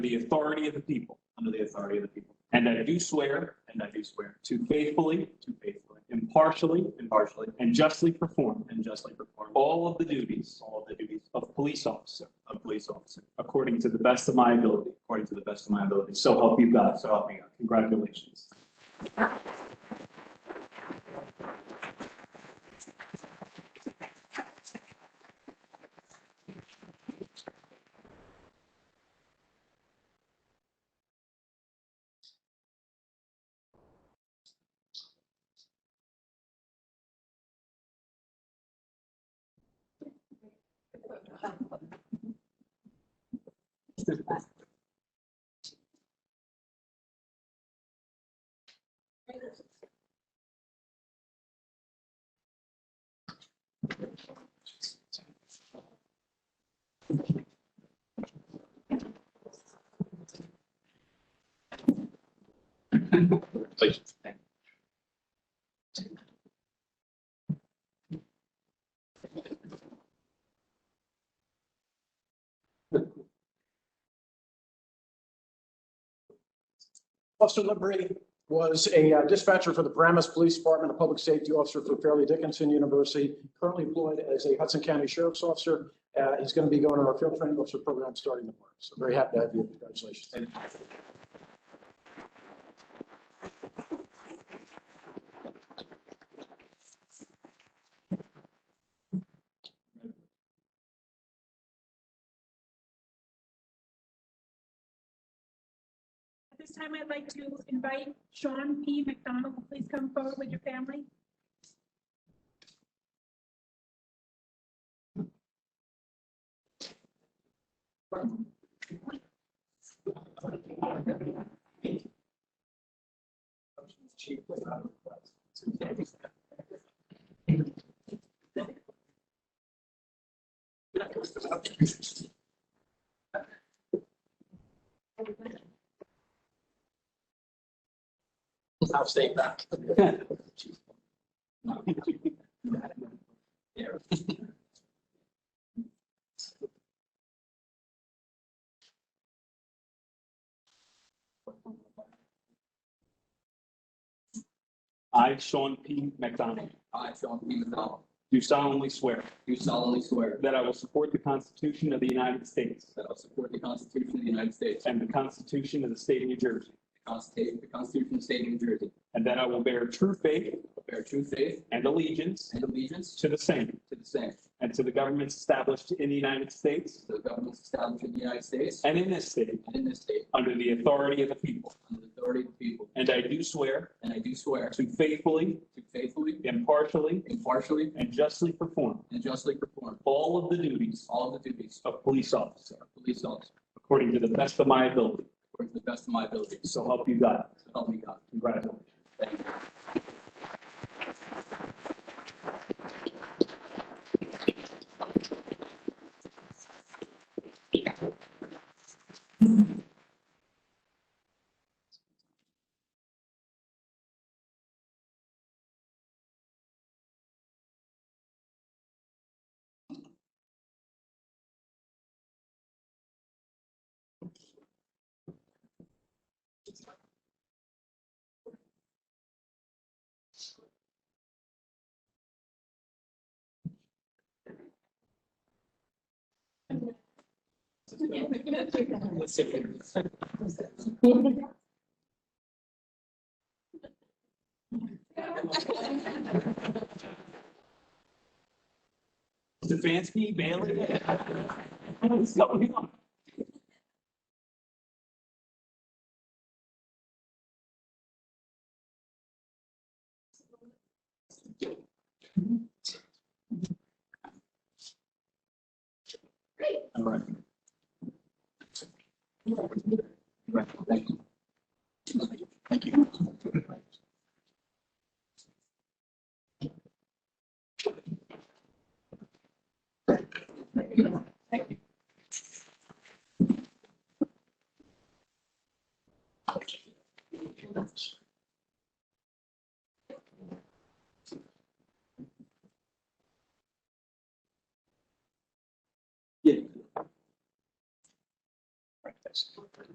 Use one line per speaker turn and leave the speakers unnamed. the authority of the people,
under the authority of the people,
and that I do swear
and I do swear
to faithfully,
to faithfully,
impartially,
impartially,
and justly perform
and justly perform
all of the duties
all of the duties
of police officer
of police officer
according to the best of my ability.
according to the best of my ability.
So help you God.
So help me God.
Congratulations.
Officer Liberty was a uh, dispatcher for the Paramus Police Department, a public safety officer for Fairleigh Dickinson University, currently employed as a Hudson County Sheriff's Officer. Uh, He's going to be going to our field training officer program starting tomorrow. So very happy to have you. Congratulations.
At this time, I'd like to invite Sean P. McDonald, to please come forward with your family.
I'll stay back.
I, Sean P. McDonald,
I, Sean P. McDonald,
do solemnly swear
do solemnly swear
that I will support the Constitution of the United States
that I will support the Constitution of the United States and
and the Constitution of the State of New Jersey,
the Constitution the Constitution of the State of New Jersey,
and that I will bear true faith
bear true faith
and allegiance
and allegiance
to the same
to the same,
and to the governments established in the United States
to the governments established in the United States
and in this state
and in this state,
under the authority of the people.
under the authority of the people,
And I do swear
and I do swear to
to faithfully,
faithfully,
impartially,
impartially,
and justly perform
and justly perform
all of the duties
all of the duties
of police officer
of police officer
according to the best of my ability.
according to the best of my ability.
So help you God.
So help me God.
Congratulations.
Thank you.
Stefanski, Bailey. What's going on?
All right. Right, thank you. Thank you.